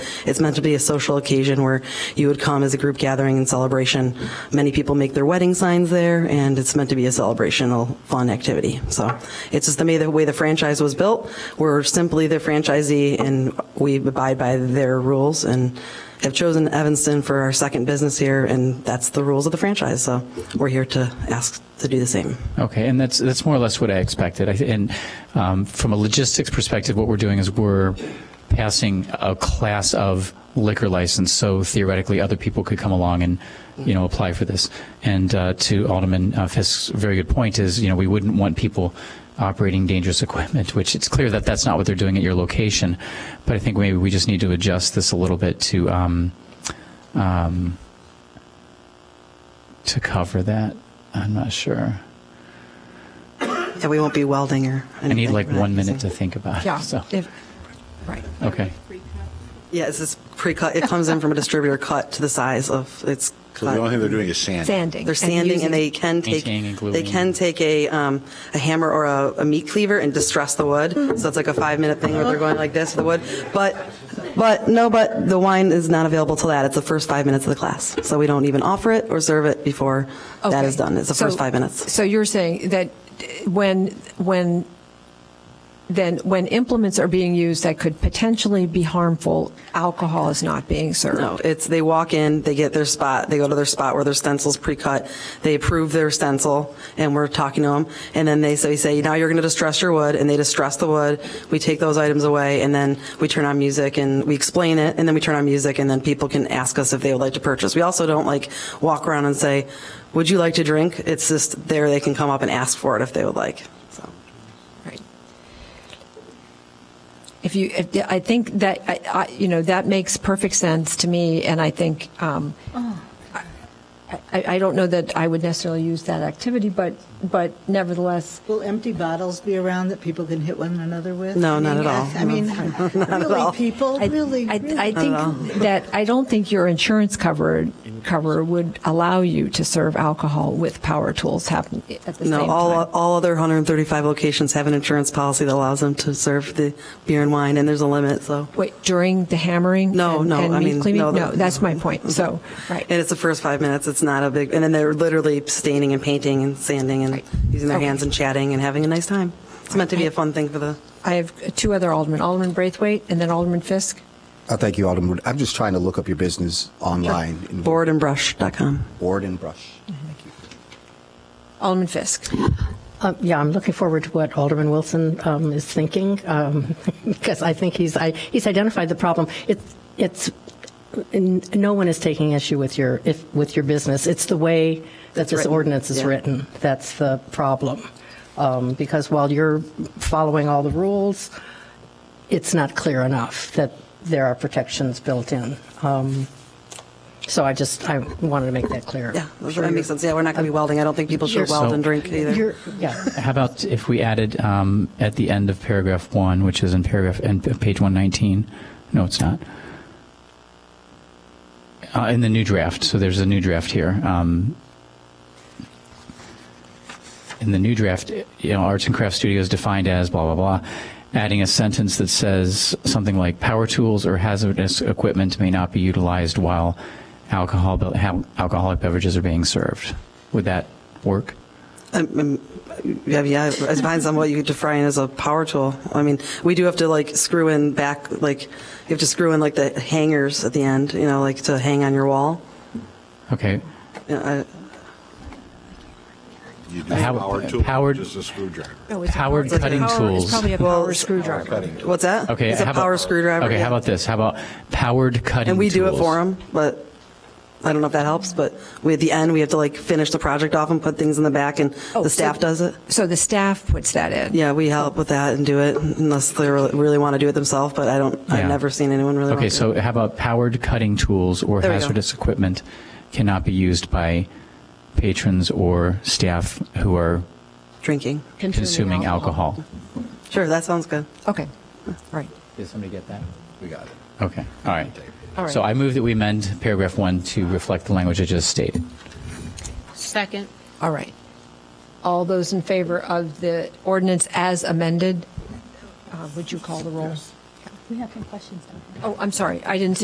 It's meant to be a social occasion where you would come as a group gathering and celebration. Many people make their wedding signs there, and it's meant to be a celebrational, fun activity. So it's just the way the, way the franchise was built. We're simply the franchisee, and we abide by their rules and have chosen Evanston for our second business here, and that's the rules of the franchise. So we're here to ask to do the same. Okay, and that's that's more or less what I expected. I, thi- and um, from a logistics perspective, what we're doing is we're passing a class of liquor license, so theoretically other people could come along and you know apply for this. And uh, to Alderman uh, Fisk's very good point is you know we wouldn't want people operating dangerous equipment, which it's clear that that's not what they're doing at your location. But I think maybe we just need to adjust this a little bit to um, um, to cover that. I'm not sure. And we won't be welding or anything. I need like We're not one minute to using- think about Yeah. it. So, if- Right. okay. Yeah, it's this pre-cut. It comes in from a distributor cut to the size of it's So the only cut. thing they're doing is sand. Sanding. They're sanding using- and they can take, Maintaining and gluing. they can take a, um, a hammer or a, a meat cleaver and distress the wood. Mm-hmm. So it's like a five minute thing where they're going like this with the wood. But, but no, but the wine is not available till that. It's the first five minutes of the class. So we don't even offer it or serve it before that Okay. is done. It's the first So- five minutes. So you're saying that when, when, then when implements are being used that could potentially be harmful, alcohol is not being served? No, it's, they walk in, they get their spot, they go to their spot where their stencil's pre-cut, they approve their stencil, and we're talking to them, and then they, so we say, now you're going to distress your wood, and they distress the wood, we take those items away, and then we turn on music, and we explain it, and then we turn on music, and then people can ask us if they would like to purchase. We also don't like walk around and say, would you like to drink? It's just there, they can come up and ask for it if they would like, so. Right. If you, if- I think that, I- I- you know, that makes perfect sense to me, and I think, um, Oh. I I don't know that I would necessarily use that activity, but, but nevertheless, Will empty bottles be around that people can hit one another with? No, I mean, not at yes, all. I mean, all. really, people, I- really? I, really? I think that, I don't think your insurance cover, cover would allow you to serve alcohol with power tools happen at the same No, all, time. all other 135 locations have an insurance policy that allows them to serve the beer and wine, and there's a limit, so. Wait, during the hammering? No, and- no, and I meat mean, cleaving? no, the- Mm-hmm. No, that's my point, so, right. And it's the first five minutes. It's not a big, and then they're literally staining and painting and sanding and Right. using their Okay. hands and chatting and having a nice time. It's meant to be a fun thing for the. I have two other aldermen, Alderman Braithwaite and then Alderman Fisk. Uh, thank you, Alderman. Wood. I'm just trying to look up your business online. in Boardandbrush.com. Board and brush. Thank you. Alderman Fisk. Uh, Yeah, I'm looking forward to what Alderman Wilson um, is thinking, um, because I think he's, I- he's identified the problem. It's, it's, n- no one is taking issue with your, if, with your business. It's the way that this written, ordinance is yeah. written that's the problem. Um, Because while you're following all the rules, it's not clear enough that there are protections built in. Um, So I just, I wanted to make that clear. Yeah, I'm that sure makes you're- sense. Yeah, we're not going to be welding. I don't think people should You're- weld So- and drink either. You're, yeah. How about if we added um, at the end of paragraph one, which is in paragraph and p- page 119? No, it's not. Uh, in the new draft, so there's a new draft here. Um, in the new draft, you know, arts and craft studios defined as blah blah blah. Adding a sentence that says something like power tools or hazardous equipment may not be utilized while alcohol be- ha- alcoholic beverages are being served. Would that work? Um, Yeah, yeah, it depends on what you define as a power tool. I mean, we do have to like screw in back, like, you have to screw in like the hangers at the end, you know, like to hang on your wall. Oh, Okay. Yeah, I- You do How- a power tool, powered- just a screwdriver. Powered cutting tools. It's probably a Well, power it's- screwdriver. What's that? Okay. It's a how about- power screwdriver. Okay. yeah. How about this? How about powered cutting? And we do it tools? for them, but I don't know if that helps, but we, at the end, we have to like finish the project off and put things in the back and Oh, the staff so- does it. So the staff puts that in? Yeah, we help with that and do it unless they really, really want to do it themselves, but I don't, I've Yeah. never seen anyone really. Okay. want to do So how about powered cutting tools or There we go. hazardous equipment cannot be used by patrons or staff who are it. Drinking. consuming alcohol. Sure, that sounds good. Okay, right. Did somebody get that? We got it. Okay. All right. All right. So I move that we amend paragraph one to reflect the language I just stated. Second. All right. All those in favor of the ordinance as amended, uh, would you call the roll? We have some questions, do Oh, I'm sorry, I didn't see